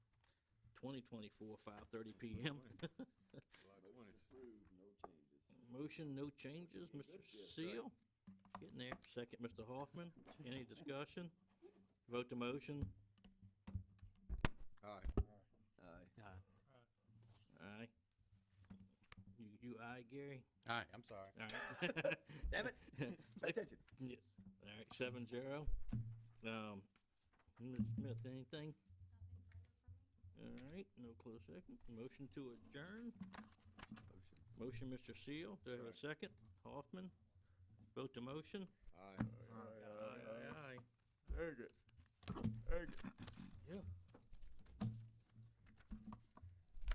twenty twenty-four, five thirty PM. Approved, no changes. Motion, no changes, Mr. Seal. Getting there. Second, Mr. Hoffman. Any discussion? Vote the motion. Aye. Aye. Aye. You, you aye, Gary? Aye, I'm sorry. All right. Damn it. Pay attention. Yeah. All right, seven zero. Um, Ms. Smith, anything? All right, no close second. Motion to adjourn. Motion, Mr. Seal. Do I have a second? Hoffman? Vote the motion. Aye. Oh, Aye, aye, aye. Very good. Very good.